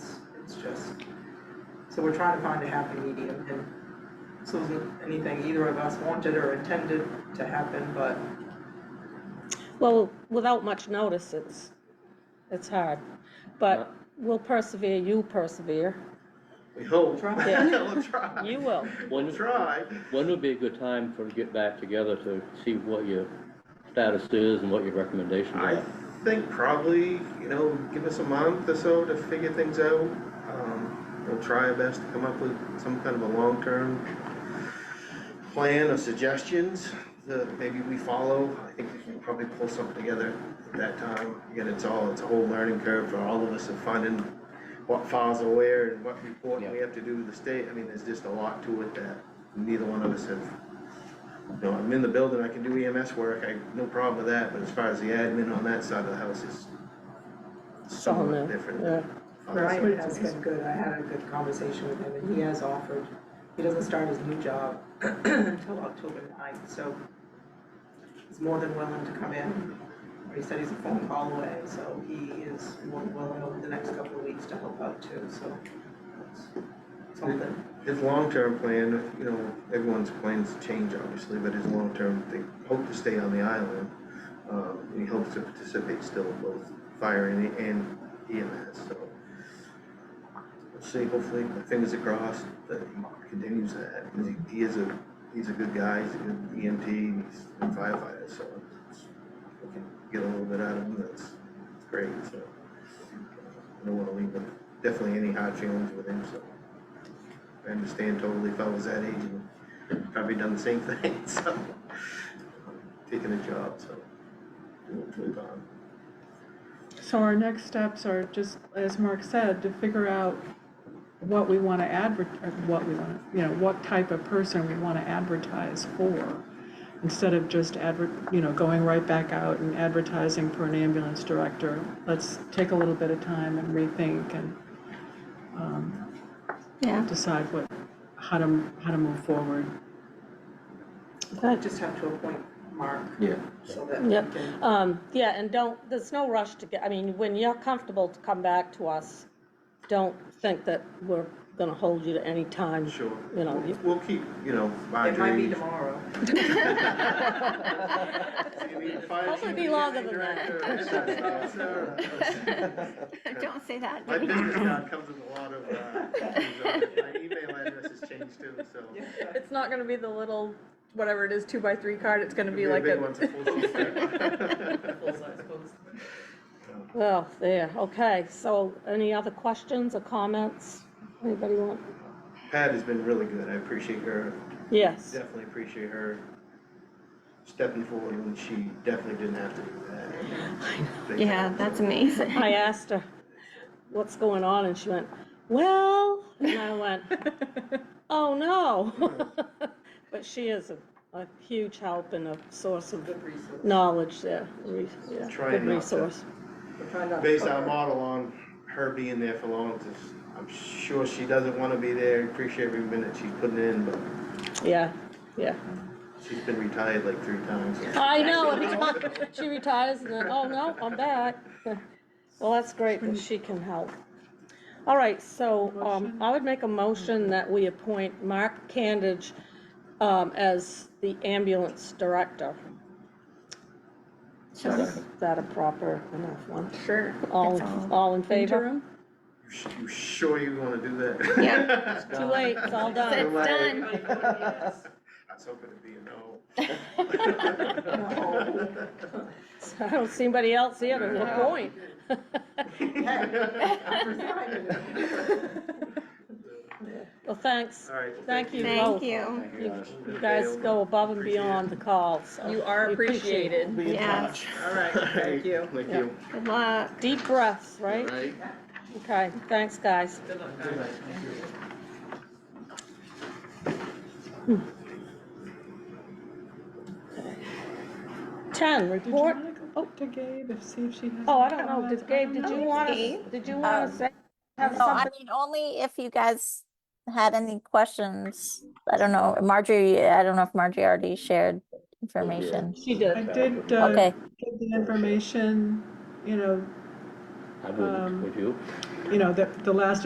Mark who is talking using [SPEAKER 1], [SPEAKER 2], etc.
[SPEAKER 1] So we're trying to find a happy medium and this wasn't anything either of us wanted or intended to happen, but
[SPEAKER 2] Well, without much notice, it's, it's hard.
[SPEAKER 3] Uh.
[SPEAKER 2] But we'll persevere, you persevere,
[SPEAKER 3] We hope.
[SPEAKER 1] Try.
[SPEAKER 3] We'll try.
[SPEAKER 2] you will.
[SPEAKER 3] We'll
[SPEAKER 4] When,
[SPEAKER 3] try.
[SPEAKER 4] when would be a good time for to get back together to see what your status is and what your recommendations
[SPEAKER 3] I
[SPEAKER 4] are?
[SPEAKER 3] think probably, you know, give us a month or so to figure things out. Um, We'll try our best to come up with some kind of a long-term plan or suggestions that maybe we follow. I think we can probably pull something together at that time. Again, it's all, it's a whole learning curve for all of us of finding what files are where and what reporting we have to do to the state. I mean, there's just a lot to it that neither one of us have No, I'm in the building, I can do EMS work, I, no problem with that, but as far as the admin on that side of the house is somewhat
[SPEAKER 2] Solid,
[SPEAKER 3] different.
[SPEAKER 2] yeah.
[SPEAKER 3] than other
[SPEAKER 1] Ryan
[SPEAKER 3] sides.
[SPEAKER 1] has been good. I had a good conversation with him and he has offered, he doesn't start his new job until October ninth, so he's more than willing to come in. He said he's a phone call away, so he is more than willing over the next couple of weeks to help out too, so it's something.
[SPEAKER 3] His long-term plan, you know, everyone's plans change obviously, but his long-term, they hope to stay on the island. Um, and he hopes to participate still in both fire and, and EMS, so. Let's see, hopefully, my fingers are crossed that he continues that, 'cause he, he is a, he's a good guy, he's a good EMT, and he's a firefighter, so. it's- we can Get a little bit out of him, that's great, so. I don't wanna leave him, definitely any hard feelings with him, so. I understand totally if I was that age and probably done the same thing, so. Taking a job, so. we'll Move on.
[SPEAKER 5] So our next steps are just, as Mark said, to figure out what we want to advert, or what we want, to you know, what type of person we want to advertise for. Instead of just advert, you know, going right back out and advertising for an ambulance director, let's take a little bit of time and rethink and um,
[SPEAKER 2] Yeah.
[SPEAKER 5] decide what, how to, how to move forward.
[SPEAKER 1] I just have to appoint Mark
[SPEAKER 3] Yeah.
[SPEAKER 1] so that we
[SPEAKER 2] Yep.
[SPEAKER 1] can
[SPEAKER 2] Um, yeah, and don't, there's no rush to get, I mean, when you're comfortable to come back to us, don't think that we're gonna hold you to any time.
[SPEAKER 3] Sure.
[SPEAKER 2] You know, you-
[SPEAKER 3] We'll keep, you know,
[SPEAKER 1] It might be
[SPEAKER 3] Marjorie.
[SPEAKER 1] tomorrow.
[SPEAKER 2] Hopefully be longer than that.
[SPEAKER 6] Don't say that.
[SPEAKER 3] uh, My business card comes with a lot of, uh, things on it. my email address has changed too, so.
[SPEAKER 7] It's not gonna be the little, whatever it is, two by three card, it's gonna
[SPEAKER 3] It'll
[SPEAKER 7] be like
[SPEAKER 3] big
[SPEAKER 7] a.
[SPEAKER 3] one, it's full-size.
[SPEAKER 2] Well, there, okay, so any other questions or comments? Anybody want?
[SPEAKER 3] Pat has been really good, I appreciate her
[SPEAKER 2] Yes,
[SPEAKER 3] definitely appreciate her stepping forward when she definitely didn't have to do that.
[SPEAKER 6] Yeah, that's amazing.
[SPEAKER 2] I asked her, what's going on, and she went, well, and I went, oh, no. But she is a, a huge help and a source of
[SPEAKER 1] Good resource.
[SPEAKER 2] knowledge there, re- yeah,
[SPEAKER 3] Trying
[SPEAKER 2] good
[SPEAKER 3] not to-
[SPEAKER 2] resource.
[SPEAKER 1] We're trying not to
[SPEAKER 3] Based our
[SPEAKER 1] cover-
[SPEAKER 3] model on her being there for long, just, I'm sure she doesn't wanna be there, appreciate every minute she's putting in, but
[SPEAKER 2] Yeah, yeah.
[SPEAKER 3] she's been retired like three times.
[SPEAKER 2] I know, and it's like, she retires and then, oh, no, I'm back. Well, that's great that she can help. All right, so, um, I would make a motion that we appoint Mark Candage, um, as the ambulance director. Is that a proper enough one?
[SPEAKER 6] Sure.
[SPEAKER 2] All,
[SPEAKER 6] It's all
[SPEAKER 2] all in favor?
[SPEAKER 7] Interim?
[SPEAKER 3] You sh- You sure you wanna do that?
[SPEAKER 6] Yeah.
[SPEAKER 3] It's
[SPEAKER 2] Too late, it's all
[SPEAKER 3] Too
[SPEAKER 2] done.
[SPEAKER 6] It's
[SPEAKER 3] late.
[SPEAKER 6] done.
[SPEAKER 3] I was hoping it'd be a no.
[SPEAKER 2] I don't see anybody else here to appoint. Well, thanks.
[SPEAKER 3] All right. well,
[SPEAKER 2] Thank you both.
[SPEAKER 6] Thank you.
[SPEAKER 2] You you guys go above and beyond the call, so.
[SPEAKER 7] You are
[SPEAKER 2] we appreciate it.
[SPEAKER 7] appreciated.
[SPEAKER 6] Yes.
[SPEAKER 1] All right, thank you.
[SPEAKER 3] Thank you.
[SPEAKER 6] Good luck.
[SPEAKER 2] Deep breaths, right?
[SPEAKER 3] Right?
[SPEAKER 2] Okay, thanks, guys. Hmm. Ten,
[SPEAKER 5] Did you
[SPEAKER 2] report,
[SPEAKER 5] want to go up to Gabe and see if she has?
[SPEAKER 2] oh, I
[SPEAKER 5] any
[SPEAKER 2] don't know,
[SPEAKER 5] comments?
[SPEAKER 2] did Gabe, did you want to,
[SPEAKER 6] Gabe.
[SPEAKER 2] did you want to say? have
[SPEAKER 8] No, Oh, I
[SPEAKER 2] something?
[SPEAKER 8] mean, only if you guys had any questions. I don't know, Marjorie, I don't know if Marjorie already shared information.
[SPEAKER 2] She
[SPEAKER 5] I
[SPEAKER 2] did,
[SPEAKER 5] did, uh,
[SPEAKER 8] Okay,
[SPEAKER 5] give the information, you know,
[SPEAKER 4] I wouldn't,
[SPEAKER 5] um,
[SPEAKER 4] would you?
[SPEAKER 5] you know, the, the last